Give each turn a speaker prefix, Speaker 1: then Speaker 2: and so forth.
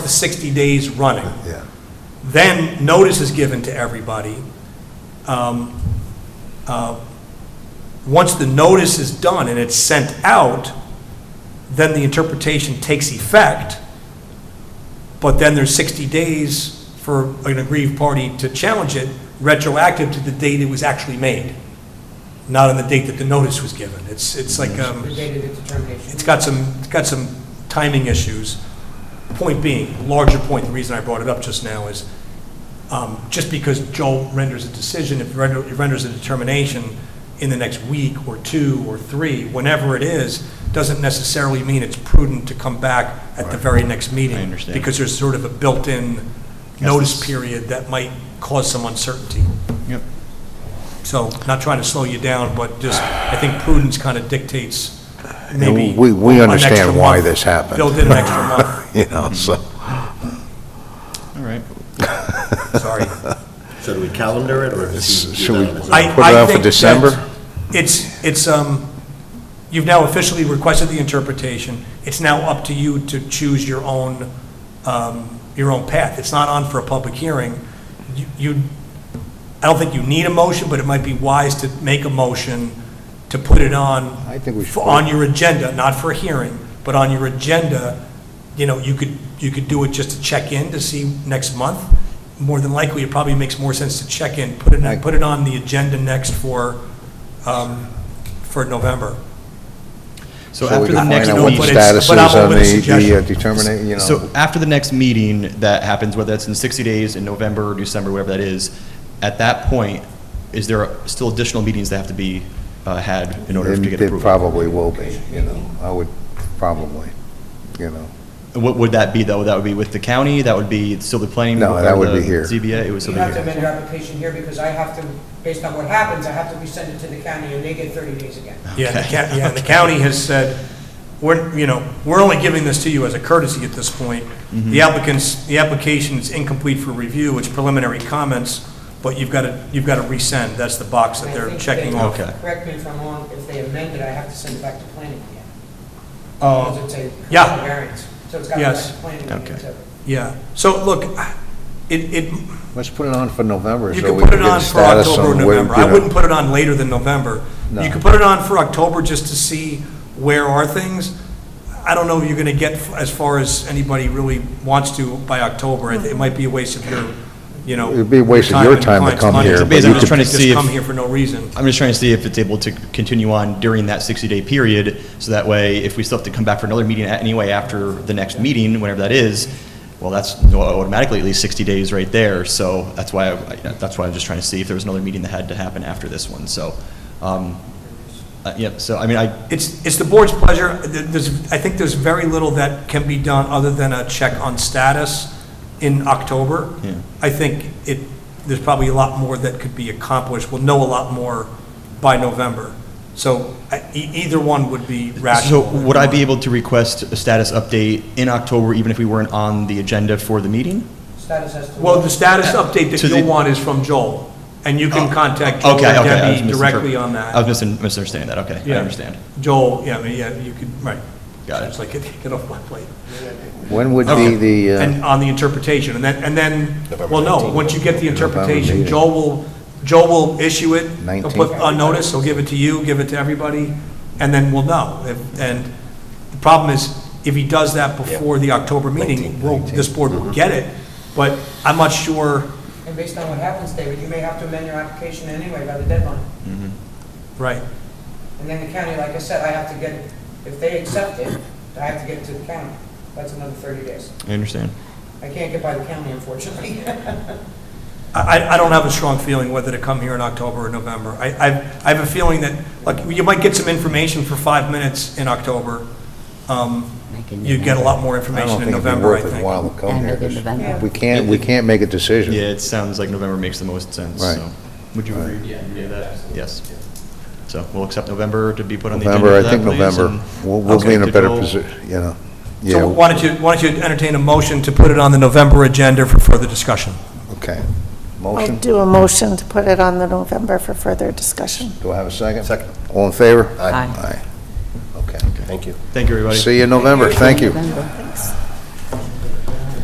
Speaker 1: 60 days running.
Speaker 2: Yeah.
Speaker 1: Then notice is given to everybody. Um, uh, Once the notice is done and it's sent out, then the interpretation takes effect. But then there's 60 days for an aggrieved party to challenge it retroactive to the date it was actually made, not on the date that the notice was given. It's, it's like, um,
Speaker 3: The date of the determination.
Speaker 1: it's got some, it's got some timing issues. Point being, larger point, the reason I brought it up just now is, um, just because Joel renders a decision, if he render- he renders a determination in the next week or two or three, whenever it is, doesn't necessarily mean it's prudent to come back at the very next meeting.
Speaker 4: I understand.
Speaker 1: Because there's sort of a built-in
Speaker 4: Yes.
Speaker 1: notice period that might cause some uncertainty.
Speaker 4: Yep.
Speaker 1: So, not trying to slow you down, but just, I think prudence kind of dictates maybe.
Speaker 2: we- we
Speaker 1: an
Speaker 2: understand
Speaker 1: extra
Speaker 2: why
Speaker 1: month.
Speaker 2: this happened.
Speaker 1: Build in an extra month,
Speaker 2: You know, so,
Speaker 4: All right.
Speaker 1: sorry.
Speaker 5: So do we calendar it, or is he?
Speaker 2: should we
Speaker 5: he's
Speaker 2: put
Speaker 5: not-
Speaker 1: I-
Speaker 2: it
Speaker 1: I
Speaker 2: out for
Speaker 1: think that
Speaker 2: December?
Speaker 1: It's, it's, um, you've now officially requested the interpretation. It's now up to you to choose your own, um, your own path. It's not on for a public hearing. You- You, I don't think you need a motion, but it might be wise to make a motion to put it on.
Speaker 2: I think we should
Speaker 1: for-
Speaker 2: put it-
Speaker 1: On your agenda, not for a hearing, but on your agenda, you know, you could, you could do it just to check in to see next month. More than likely, it probably makes more sense to check in, put
Speaker 2: I-
Speaker 1: it, put it on the agenda next for, um, for November.
Speaker 2: So
Speaker 4: So
Speaker 2: we
Speaker 4: after the
Speaker 2: can
Speaker 4: next
Speaker 2: find out what the
Speaker 1: meeting-
Speaker 4: meeting,
Speaker 2: status is
Speaker 1: But I'm
Speaker 2: on
Speaker 1: open to
Speaker 2: the- the uh,
Speaker 1: suggestions.
Speaker 2: determinate, you know.
Speaker 4: so after the next meeting that happens, whether that's in 60 days, in November, or December, whatever that is, at that point, is there still additional meetings that have to be uh, had in order to
Speaker 2: It-
Speaker 4: get
Speaker 2: It
Speaker 4: approval?
Speaker 2: probably will be, you know, I would, probably, you know.
Speaker 4: And What would that be, though? That would be with the county? That would be still the planning?
Speaker 2: No,
Speaker 4: board,
Speaker 2: that
Speaker 4: or
Speaker 2: would
Speaker 4: the
Speaker 2: be here.
Speaker 4: ZBA? It would
Speaker 3: You
Speaker 4: still be
Speaker 3: have to
Speaker 4: here.
Speaker 3: amend your application here because I have to, based on what happens, I have to resend it to the county and they get 30 days again.
Speaker 1: Yeah, the
Speaker 4: Okay.
Speaker 1: county, yeah, the county has said, we're, you know, we're only giving this to you as a courtesy at this point.
Speaker 4: Mm-hmm.
Speaker 1: The applicant's, the application is incomplete for review, it's preliminary comments, but you've got to, you've got to resend, that's the box that
Speaker 3: And I
Speaker 1: they're
Speaker 3: think
Speaker 1: checking
Speaker 3: they-
Speaker 1: off.
Speaker 4: Okay.
Speaker 3: Correct me if I'm wrong, if they amend it, I have to send it back to planning again.
Speaker 1: Uh,
Speaker 3: Because it's a
Speaker 1: yeah.
Speaker 3: commercial variance. So it's got to go back
Speaker 1: Yes.
Speaker 3: to planning again.
Speaker 4: Okay.
Speaker 3: so-
Speaker 1: Yeah, so look, it, it,
Speaker 2: Let's put it on for November
Speaker 1: you
Speaker 2: so
Speaker 1: could
Speaker 2: we can
Speaker 1: put it
Speaker 2: get a
Speaker 1: on for
Speaker 2: status
Speaker 1: October or
Speaker 2: on where, you
Speaker 1: November. I
Speaker 2: know.
Speaker 1: wouldn't put it on later than November.
Speaker 2: No.
Speaker 1: You could put it on for October just to see where are things. I don't know if you're going to get f- as far as anybody really wants to by October. It it might be a waste of your, you know.
Speaker 2: It'd be a waste of your
Speaker 1: and
Speaker 2: time to
Speaker 1: client's
Speaker 2: come
Speaker 1: money.
Speaker 2: here,
Speaker 1: It's
Speaker 2: but
Speaker 1: basically
Speaker 2: you
Speaker 1: I'm
Speaker 2: could-
Speaker 1: trying to
Speaker 4: Just
Speaker 1: see if-
Speaker 4: come
Speaker 1: Come
Speaker 4: here
Speaker 1: here for no reason.
Speaker 4: I'm just trying to see if it's able to continue on during that 60-day period, so that way, if we still have to come back for another meeting anyway after the next meeting, whenever that is, well, that's automatically at least 60 days right there, so that's why, I- that's why I'm just trying to see if there was another meeting that had to happen after this one, so, um, uh, yeah, so, I mean, I,
Speaker 1: It's, it's the board's pleasure. Th- There's, I think there's very little that can be done other than a check on status in October.
Speaker 4: Yeah.
Speaker 1: I think it, there's probably a lot more that could be accomplished. We'll know a lot more by November. So I- e- either one would be
Speaker 4: so
Speaker 1: rational.
Speaker 4: would I be able to request a status update in October, even if we weren't on the agenda for the meeting?
Speaker 3: Status has to.
Speaker 1: Well, the status update that
Speaker 4: To the- Oh,
Speaker 1: you'll want is from Joel, and you can contact Joel or
Speaker 4: Okay, okay, I was
Speaker 1: Debbie
Speaker 4: misinterpre-
Speaker 1: directly on
Speaker 4: I was
Speaker 1: that.
Speaker 4: misin- misunderstanding that, okay, I
Speaker 1: Yeah.
Speaker 4: understand.
Speaker 1: Joel, yeah, I mean, yeah, you could, right.
Speaker 4: Got it.
Speaker 1: It's like, get off my plate.
Speaker 2: When would
Speaker 4: Okay.
Speaker 2: be the, uh,
Speaker 1: And on the interpretation, and then, and then, well, no, once you get the interpretation,
Speaker 2: meeting.
Speaker 1: Joel will, Joel will issue it, he'll
Speaker 2: 19th.
Speaker 1: put on notice, he'll give it to you, give it to everybody, and then we'll know. If- And the problem is, if he does that before the October meeting, we'll- this board
Speaker 2: Mm-hmm.
Speaker 1: will get it, but I'm not sure,
Speaker 3: And based on what happens, David, you may have to amend your application anyway by the deadline.
Speaker 1: right,
Speaker 3: And then the county, like I said, I have to get, if they accept it, I have to get it to the county. That's another 30 days.
Speaker 4: I understand.
Speaker 3: I can't get by the county, unfortunately.
Speaker 1: I, I- I don't have a strong feeling whether to come here in October or November. I, I, I have a feeling that, like, you might get some information for five minutes in October. Um, You'd get a lot more
Speaker 2: I don't
Speaker 1: information in
Speaker 2: think it'd be
Speaker 1: November, I
Speaker 2: worth it
Speaker 1: think.
Speaker 2: while to come here, 'cause
Speaker 3: Yeah.
Speaker 2: we can't, we can't make a decision.
Speaker 4: Yeah, it sounds like November makes the most sense,
Speaker 2: Right.
Speaker 4: so. Would you agree? Yeah. Yes. So we'll accept November to be put on the agenda
Speaker 2: November,
Speaker 4: for
Speaker 2: I think
Speaker 4: that, please,
Speaker 2: November,
Speaker 4: and-
Speaker 2: we'll, we'll be in a
Speaker 4: Okay,
Speaker 2: better
Speaker 4: Joel.
Speaker 2: position, you know.
Speaker 1: So
Speaker 2: Yeah,
Speaker 1: why don't you, why don't you entertain a motion to put it on the November agenda for further discussion?
Speaker 2: okay.
Speaker 6: I'll
Speaker 2: Motion,
Speaker 6: do a motion to put it on the November for further discussion.
Speaker 2: do I have a second?
Speaker 5: Second.
Speaker 2: All in favor?
Speaker 5: Aye.
Speaker 2: Aye. Okay.
Speaker 5: Thank you.
Speaker 4: Thank you, everybody.
Speaker 2: See you in November, thank you.
Speaker 6: Thanks.